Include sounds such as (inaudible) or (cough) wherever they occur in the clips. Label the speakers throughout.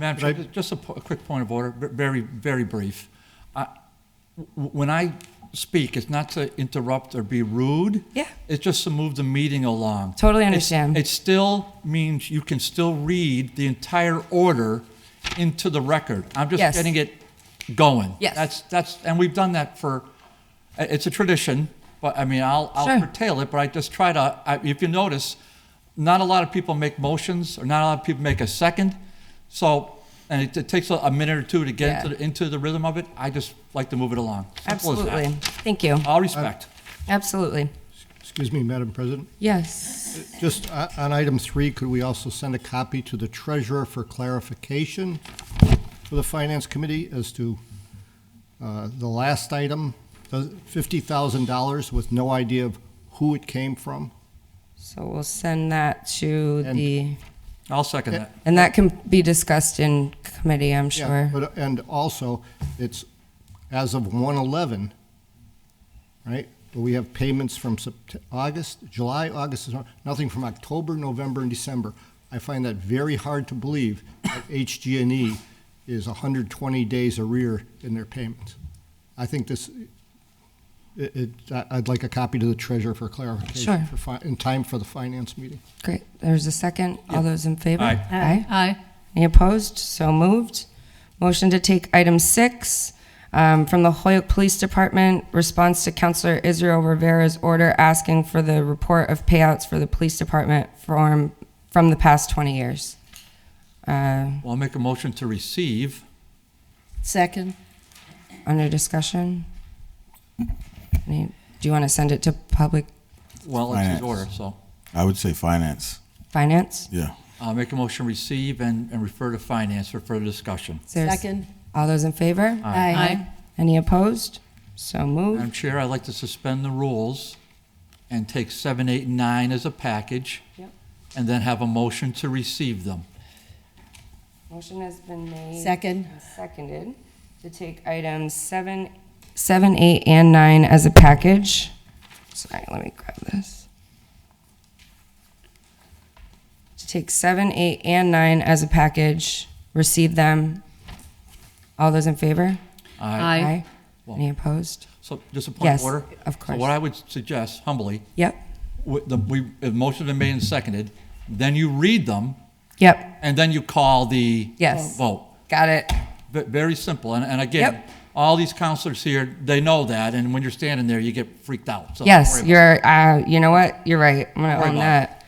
Speaker 1: Madam Chair, ju- just a, po- a quick point of order, v- very, very brief. I- w- w- When I speak, it's not to interrupt or be rude.
Speaker 2: Yeah.
Speaker 1: It's just to move the meeting along.
Speaker 2: Totally
Speaker 1: It's-
Speaker 2: understand.
Speaker 1: It still means you can still read the entire order into the record. I'm just
Speaker 2: Yes.
Speaker 1: getting it going.
Speaker 2: Yes.
Speaker 1: That's, that's, and we've done that for, i- it's a tradition, but, I mean, I'll, I'll
Speaker 2: Sure.
Speaker 1: curtail it, but I just try to, I- if you notice, not a lot of people make motions, or not a lot of people make a second, so, and it- it takes a- a minute or two to get
Speaker 2: Yeah.
Speaker 1: into, the- into the rhythm of it, I just like to move it along. Simple as that.
Speaker 2: Absolutely. Thank you.
Speaker 1: All respect.
Speaker 2: Absolutely.
Speaker 3: Excuse me, Madam President.
Speaker 2: Yes.
Speaker 3: Just o- on item three, could we also send a copy to the treasurer for clarification for the Finance Committee as to uh, the last item, the $50,000 with no idea of who it came from?
Speaker 2: So we'll send that to
Speaker 3: And-
Speaker 2: the,
Speaker 1: I'll second that.
Speaker 2: and that can be discussed in committee, I'm
Speaker 3: Yeah,
Speaker 2: sure.
Speaker 3: But, and also, it's as of 1/11, right? But we have payments from Sept- August, July, August, and Au- nothing from October, November, and December. I find that very hard to believe that HG&E E is 120 days arrear in their payments. I think this, it, it- I- I'd like a copy to the treasurer for clarification.
Speaker 2: Sure.
Speaker 3: for fi- In time for the finance meeting.
Speaker 2: Great. There's a second. All those in favor?
Speaker 1: Aye.
Speaker 2: Aye.
Speaker 4: Aye.
Speaker 2: Any opposed? So moved. Motion to take item six um, from the Hoyok Police Department, response to Counselor Israel Rivera's order asking for the report of payouts for the police department from, from the past 20 years. Uh,
Speaker 1: Well, I'll make a motion to receive.
Speaker 4: Second.
Speaker 2: Under discussion? Any- Do you want to send it to public
Speaker 1: Well, it's his
Speaker 5: Finance.
Speaker 1: order, so
Speaker 5: I would say finance.
Speaker 2: finance?
Speaker 5: Yeah.
Speaker 1: I'll make a motion, receive and, and refer to finance for further discussion.
Speaker 2: Is there a- All those in favor?
Speaker 1: Aye.
Speaker 2: Any opposed? So moved.
Speaker 1: Madam Chair, I'd like to suspend the rules and take seven, eight, and nine as a package. And then have a motion to receive them.
Speaker 2: Motion has been made.
Speaker 4: Second.
Speaker 2: and Seconded to take items seven, seven, eight, and nine as a package. Sorry, let me grab this. To take seven, eight, and nine as a package, receive them. All those in favor?
Speaker 1: Aye.
Speaker 2: Any opposed?
Speaker 1: So just a point
Speaker 2: Uh, Yes,
Speaker 1: of order?
Speaker 2: of
Speaker 1: So
Speaker 2: course.
Speaker 1: what I would suggest humbly,
Speaker 2: Yep,
Speaker 1: wi- the, we, if motion been made and seconded, then you read them
Speaker 2: yep,
Speaker 1: and then you call the
Speaker 2: Yes.
Speaker 1: vote.
Speaker 2: got it.
Speaker 1: Ve- Very simple. And, and again,
Speaker 2: Yep.
Speaker 1: all these counselors here, they know that. And when you're standing there, you get freaked out. So don't worry
Speaker 2: Yes,
Speaker 1: about it.
Speaker 2: you're, uh, you know what? You're right. I'm gonna
Speaker 1: worry
Speaker 2: own
Speaker 1: about
Speaker 2: that.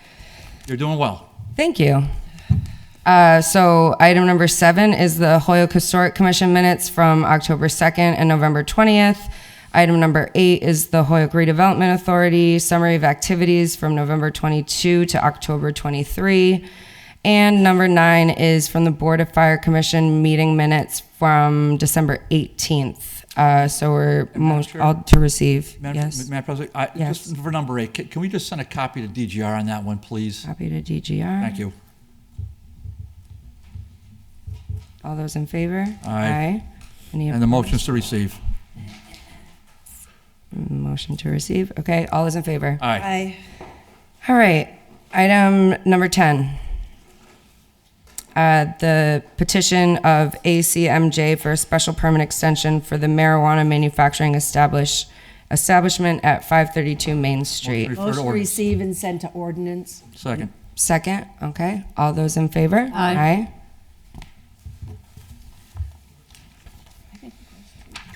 Speaker 1: You're doing well.
Speaker 2: Thank you. Uh, so item number seven is the Hoyok Historic Commission minutes from October 2nd and November 20th. Item number eight is the Hoyok Redevelopment Authority summary of activities from November 22 to October 23. And number nine is from the Board of Fire Commission meeting minutes from December 18th. Uh, so we're mo-
Speaker 1: Chair?
Speaker 2: all to receive.
Speaker 1: Madam
Speaker 2: yes.
Speaker 1: Madam President, I-
Speaker 2: Yes.
Speaker 1: just for number eight, ca- can we just send a copy to DGR on that one, please?
Speaker 2: Copy to DGR.
Speaker 1: Thank you.
Speaker 2: All those in favor?
Speaker 1: Aye.
Speaker 2: Any
Speaker 1: And the motions to receive.
Speaker 2: motion to receive? Okay, all those in favor?
Speaker 1: Aye.
Speaker 4: Aye.
Speaker 2: All right, item number 10. Uh, The petition of ACMJ for a special permit extension for the marijuana manufacturing establish, establishment at 532 Main Street.
Speaker 1: Refer to
Speaker 4: Motion to
Speaker 1: ordinance.
Speaker 4: receive and send to ordinance.
Speaker 1: Second.
Speaker 2: Second, okay, all those in favor?
Speaker 4: Aye.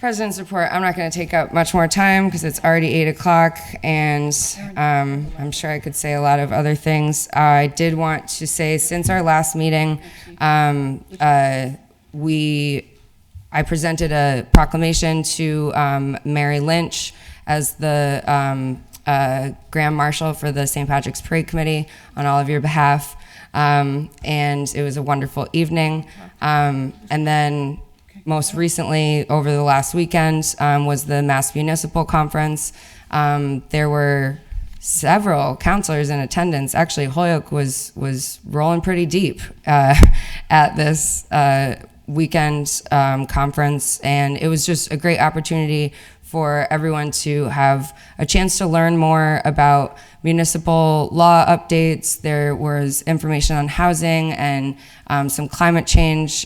Speaker 2: President's report, I'm not going to take up much more time because it's already 8 o'clock and um, I'm sure I could say a lot of other things. I did want to say, since our last meeting, um, uh, we, I presented a proclamation to um, Mary Lynch as the um, uh, Grand Marshal for the St. Patrick's Parade Committee on all of your behalf. Um, and it was a wonderful evening. Um, and then most recently, over the last weekend, um, was the Mass Municipal Conference. Um, there were several counselors in attendance. Actually, Holyoke was was rolling pretty deep uh, (laughs) at this uh, weekend um, conference, and it was just a great opportunity for everyone to have a chance to learn more about municipal law updates. There was information on housing and um, some climate change